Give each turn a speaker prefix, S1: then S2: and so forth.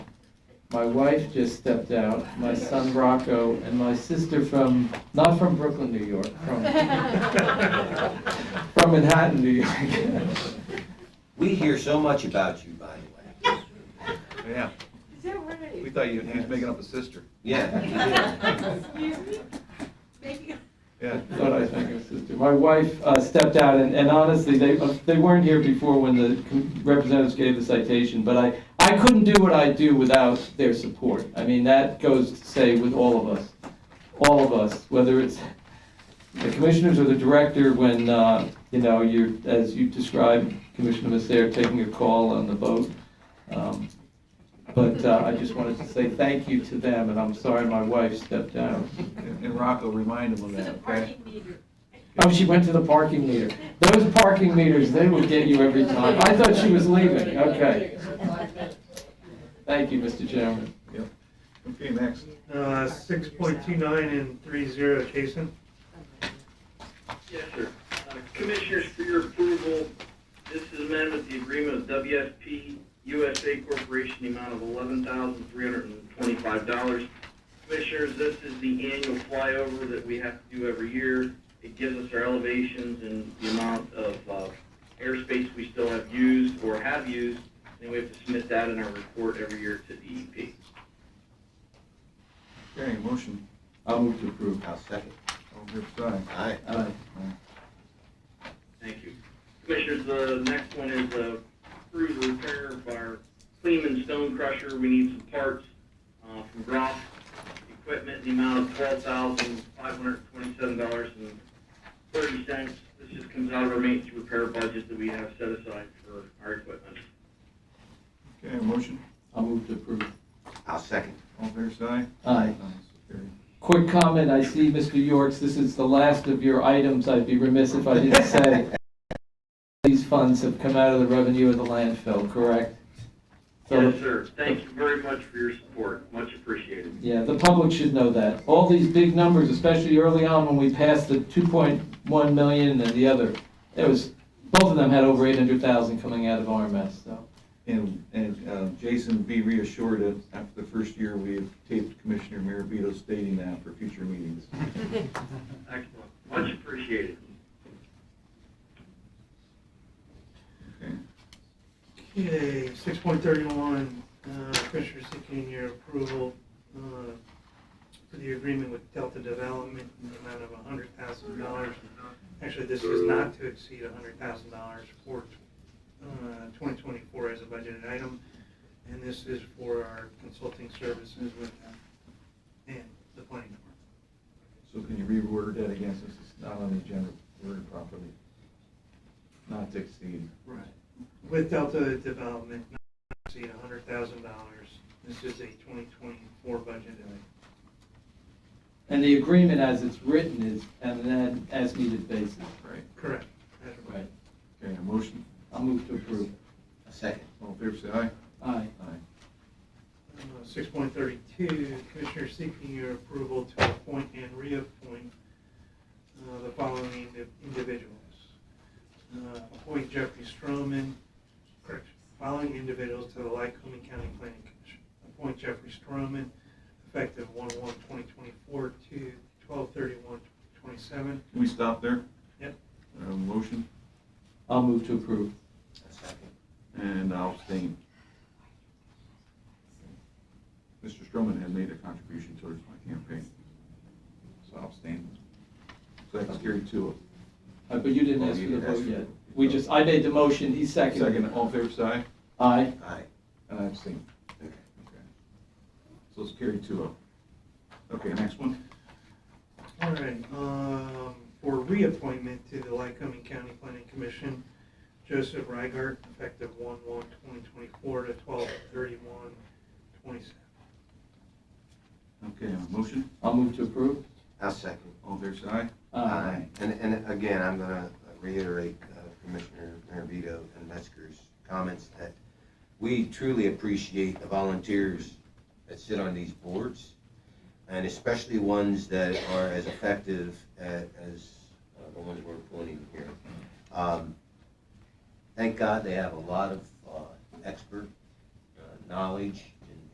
S1: My wife just stepped out, my son Rocco, and my sister from, not from Brooklyn, New York, from, from Manhattan, New York.
S2: We hear so much about you, by the way.
S3: Yeah,
S4: Is that right?
S3: we thought you, he was making up a sister.
S2: Yeah.
S4: Excuse me? Making
S3: Yeah.
S1: Thought I was making a sister. My wife uh, stepped out, and and honestly, they, uh, they weren't here before when the com- representatives gave the citation, but I, I couldn't do what I do without their support. I mean, that goes to say with all of us, all of us, whether it's the commissioners or the director, when, uh, you know, you're, as you described, Commissioner Masser, taking a call on the vote. Um, But uh, I just wanted to say thank you to them, and I'm sorry my wife stepped out.
S3: And and Rocco, remind him of
S4: This is a
S3: that, okay?
S4: parking meter.
S1: Oh, she went to the parking meter. Those parking meters, they would get you every time. I thought she was leaving, okay. Thank you, Mr. Chairman.
S3: Yep. Okay, next.
S5: Uh, 6.29 and 30, Jason.
S6: Yes, sir. Uh, Commissioners, for your approval, this is amendment to the agreement of WSP USA Corporation, the amount of eleven thousand three hundred and twenty-five dollars. Commissioners, this is the annual flyover that we have to do every year. It gives us our elevations and the amount of uh, airspace we still have used or have used, and we have to submit that in our report every year to E DEP.
S3: Okay, motion.
S1: I'll move to approve.
S2: I'll second.
S3: All fair side.
S2: Aye.
S1: Aye.
S6: Thank you. Commissioners, the next one is uh, approve the repair of our Cleveland stone crusher. We need some parts uh, from Groff Equipment in the amount of twelve thousand five hundred twenty-seven dollars and thirty cents. This just comes out of our maintenance repair budget that we have set aside for our equipment.
S3: Okay, motion.
S1: I'll move to approve.
S2: I'll second.
S3: All fair side.
S1: Aye.
S3: so carried.
S1: Quick comment, I see, Mr. Yorks, this is the last of your items. I'd be remiss if I didn't say these funds have come out of the revenue of the landfill, correct? So,
S6: Yes, sir. Thank you very much for your support. Much appreciated.
S1: yeah, the public should know that. All these big numbers, especially early on when we passed the 2.1 million and the other, it was, both of them had over 800,000 coming out of RMS, so.
S3: And, and uh, Jason, be reassured that after the first year, we have taped Commissioner Mirabito stating that for future meetings.
S6: Excellent. Much appreciated.
S3: Okay.
S5: Okay, 6.31, uh, Commissioner seeking your approval uh, for the agreement with Delta Development in the amount of $100,000. Actually, this is not to exceed $100,000 for uh, 2024 as a budgeted item, and this is for our consulting services with them and the planning department.
S3: So can you reword that again, since it's not on the agenda, worded properly? Not to exceed.
S5: Right. With Delta Development, not to exceed hundred thousand dollars. This is a twenty twenty-four budget.
S1: And the agreement as it's written is on an as-needed basis.
S3: Right.
S5: Correct. That's right.
S3: Okay, a motion.
S1: I'll move to approve.
S2: I'll second.
S3: All in favor, say aye.
S1: Aye.
S3: Aye.
S5: Uh, Six point thirty-two, Commissioner seeking your approval to appoint and reappoint uh, the following indi- individuals. Uh, Appoint Jeffrey Stroman, correct, following individuals to the Lycoming County Planning Commission. Appoint Jeffrey Stroman, effective one one twenty twenty-four to twelve thirty-one twenty-seven.
S3: Can we stop there?
S5: Yep.
S3: Uh, motion,
S1: I'll move to approve.
S2: I'll second.
S3: and I'll abstain. Mr. Stroman has made a contribution towards my campaign, so I'll abstain. So that's carried two.
S1: Uh, But you didn't
S3: Oh,
S1: ask
S3: you
S1: for the
S3: didn't ask
S1: vote
S3: for
S1: yet.
S3: the vote.
S1: We just, I made the motion, he seconded.
S3: Second, all in favor, say aye.
S1: Aye.
S2: Aye.
S3: And I abstain.
S2: Okay.
S3: Okay. So it's carried two oh. Okay, next one.
S5: All right, um, for reappointment to the Lycoming County Planning Commission, Joseph Reigart, effective one one twenty twenty-four to twelve thirty-one twenty-seven.
S3: Okay, a motion,
S1: I'll move to approve.
S2: I'll second.
S3: all in favor, say aye.
S1: Aye.
S2: And, and again, I'm gonna reiterate uh, Commissioner Maravito and Metzger's comments that we truly appreciate the volunteers that sit on these boards, and especially ones that are as effective a- as uh, the ones we're appointing here. Um, Thank God they have a lot of uh, expert uh, knowledge